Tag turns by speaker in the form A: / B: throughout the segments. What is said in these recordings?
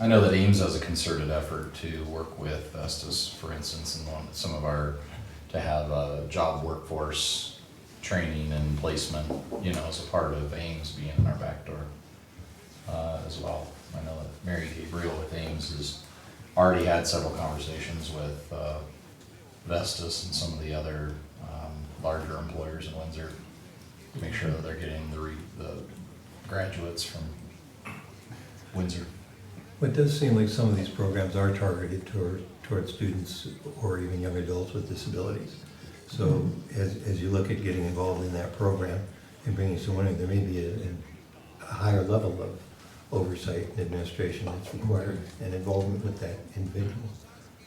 A: I know that Ames does a concerted effort to work with Estes, for instance, and on some of our, to have a job workforce training and placement, you know, as a part of Ames being in our back door uh, as well. I know that Mary Gabriel with Ames has already had several conversations with uh, Vestas and some of the other um, larger employers in Windsor. to Make sure that they're getting the re- the graduates from Windsor.
B: Well, It does seem like some of these programs are targeted toward, toward students or even young adults with disabilities. So as, as you look at getting involved in that program and bringing someone in, there may be a, a higher level of oversight and administration that's required and involvement with that individual.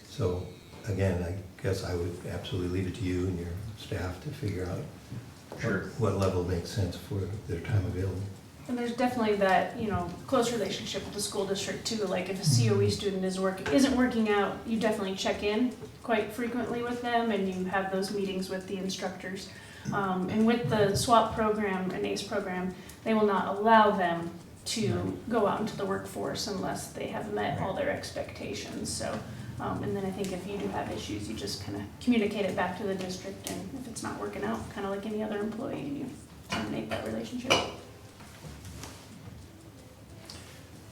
B: So again, I guess I would absolutely leave it to you and your staff to figure out
A: Sure.
B: what level makes sense for their time available.
C: And there's definitely that, you know, close relationship with the school district too, like if a COE student is working, isn't working out, you definitely check in quite frequently with them and you have those meetings with the instructors. Um, and with the SWAP program and ACE program, they will not allow them to go out into the workforce unless they have met all their expectations, so. Um, and then I think if you do have issues, you just kinda communicate it back to the district and if it's not working out, kinda like any other employee, you terminate that relationship.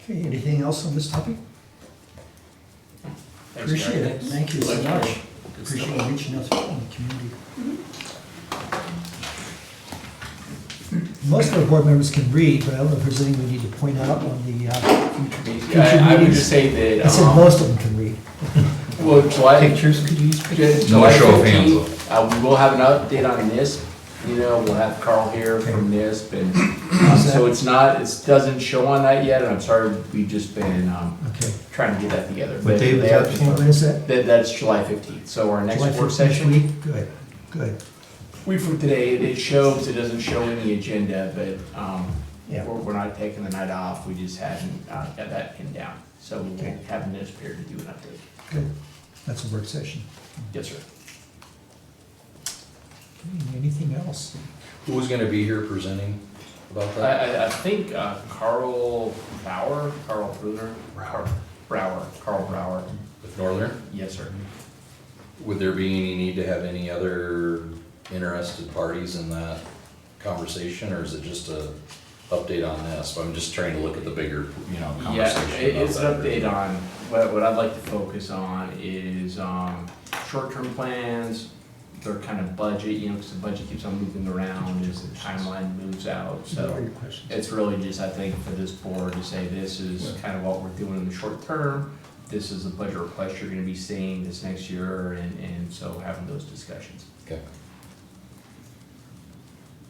D: Okay, anything else on this topic?
E: Thanks, guys.
D: Appreciate it, thank you so
E: Thanks,
D: much.
E: Gary. Good stuff.
D: Appreciate you reaching out to the community. Most of our board members can read, but I don't know if there's anything we need to point out on the uh, future future
E: Yeah, I I would just
D: meetings.
E: say that.
D: I said
E: um,
D: most of them can read.
E: Well, July.
D: Pictures, could you use pictures?
E: Ju-
A: No
E: July
A: show of hands,
E: 15th, Uh, we will have an update on NISP, you know, we'll have Carl here from NISP and, um, so it's not, it doesn't show on that yet, and I'm sorry, we've just been, um,
D: Okay.
E: trying to get that together.
B: What
E: They-
B: day was
E: they are
B: that?
E: confirmed.
D: When is that?
E: That, that's July fifteenth, so our next
D: July
E: work
D: 15th
E: session,
D: week? Good, good.
E: we from today, it- it shows, it doesn't show in the agenda, but, um,
D: Yeah.
E: we're, we're not taking the night off, we just hadn't, uh, got that pinned down, so we'll
D: Okay.
E: have NISP here to do an update.
D: Good. That's a work session.
E: Yes, sir.
D: Okay, Anything else?
A: Who's gonna be here presenting about
E: I,
A: that?
E: I, I think uh, Carl Bauer, Carl Bruder,
A: Brower.
E: Brower, Carl Brower.
A: With Northern?
E: Yes, sir.
A: Would there be any need to have any other interested parties in that conversation, or is it just a update on this? I'm just trying to look at the bigger, you know,
E: Yeah,
A: conversation.
E: it-
A: about
E: it's an
A: that.
E: update on, what, what I'd like to focus on is, um, short-term plans, their kind of budget, you know, because the budget keeps on moving around as the timeline moves out, so.
D: Your questions?
E: It's really just, I think, for this board to say, this is kind of what we're doing in the short term, this is the budget request you're gonna be seeing this next year, and, and so having those discussions.
A: Okay.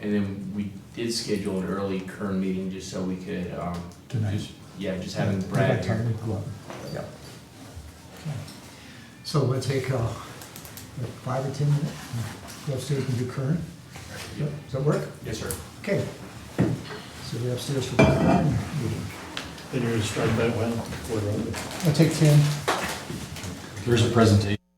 E: And then we did schedule an early Kern meeting just so we could, um,
D: Tonight.
E: just- yeah, just having
D: Give it
E: Brad
D: time
E: here.
D: to go up.
E: Yep.
D: Okay. So we'll take uh, what, five or 10 minutes, go upstairs and do current.
E: Yep.
D: Does that work?
E: Yes, sir.
D: Okay. So we're upstairs for the current meeting.
F: Then you're gonna start that one, quarter over.
D: I'll take 10.
A: There's a presentation